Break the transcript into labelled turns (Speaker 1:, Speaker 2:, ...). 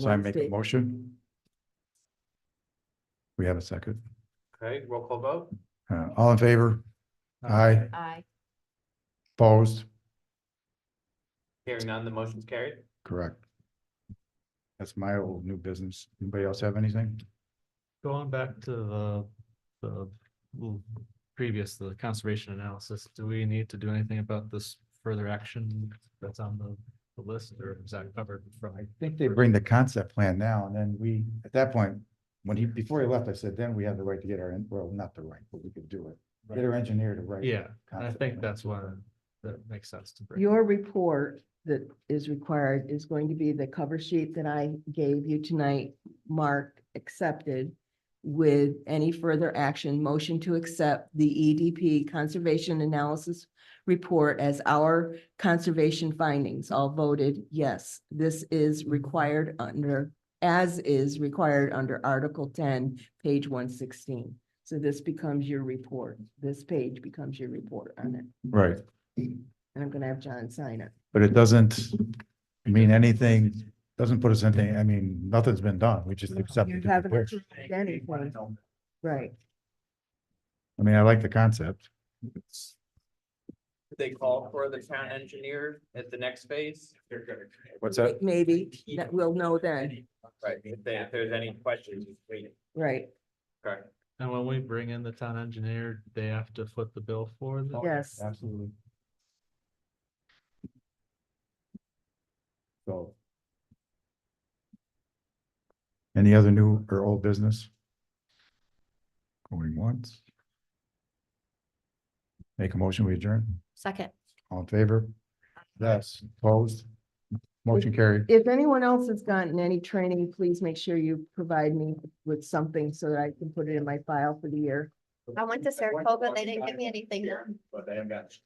Speaker 1: So I make a
Speaker 2: Wednesday.
Speaker 1: motion. We have a second.
Speaker 3: Okay, roll call vote?
Speaker 1: Uh, all in favor? Aye.
Speaker 2: Aye.
Speaker 1: Opposed?
Speaker 3: Hearing none, the motion's carried.
Speaker 1: Correct. That's my old new business. Anybody else have anything?
Speaker 4: Going back to the, the l- previous, the conservation analysis, do we need to do anything about this further action that's on the, the list or is that covered from?
Speaker 1: I think they bring the concept plan now and then we, at that point, when he, before he left, I said, then we have the right to get our, en- well, not the right, but we could do it. Get our engineer to write.
Speaker 4: Yeah, and I
Speaker 1: concept
Speaker 4: think
Speaker 1: plan.
Speaker 4: that's why that makes sense to bring.
Speaker 2: Your report that is required is going to be the cover sheet that I gave you tonight, Mark accepted with any further action, motion to accept the EDP Conservation Analysis Report as our conservation findings, all voted yes. This is required under, as is required under Article ten, page one sixteen. So this becomes your report. This page becomes your report on it.
Speaker 1: Right,
Speaker 2: And I'm gonna have John sign it.
Speaker 1: but it doesn't mean anything, doesn't put us in any, I mean, nothing's been done. We just accept.
Speaker 2: You
Speaker 1: it.
Speaker 2: haven't approved anything, right?
Speaker 1: I mean, I like the concept.
Speaker 3: Did They call for the town engineer at the next phase? They're good.
Speaker 1: What's that?
Speaker 2: Maybe, that we'll know then,
Speaker 3: Right, if they- if there's any questions, just wait.
Speaker 2: right?
Speaker 3: Okay,
Speaker 4: And when we bring in the town engineer, they have to foot the bill for the.
Speaker 2: Yes.
Speaker 1: Absolutely. So. Any other new or old business? Going once? Make a motion, we adjourn.
Speaker 5: Second.
Speaker 1: All in favor? Yes, opposed? Motion carried.
Speaker 2: If anyone else has gotten any training, please make sure you provide me with something so that I can put it in my file for the year.
Speaker 5: I went to Saratoga, they didn't give me anything.
Speaker 3: But they haven't got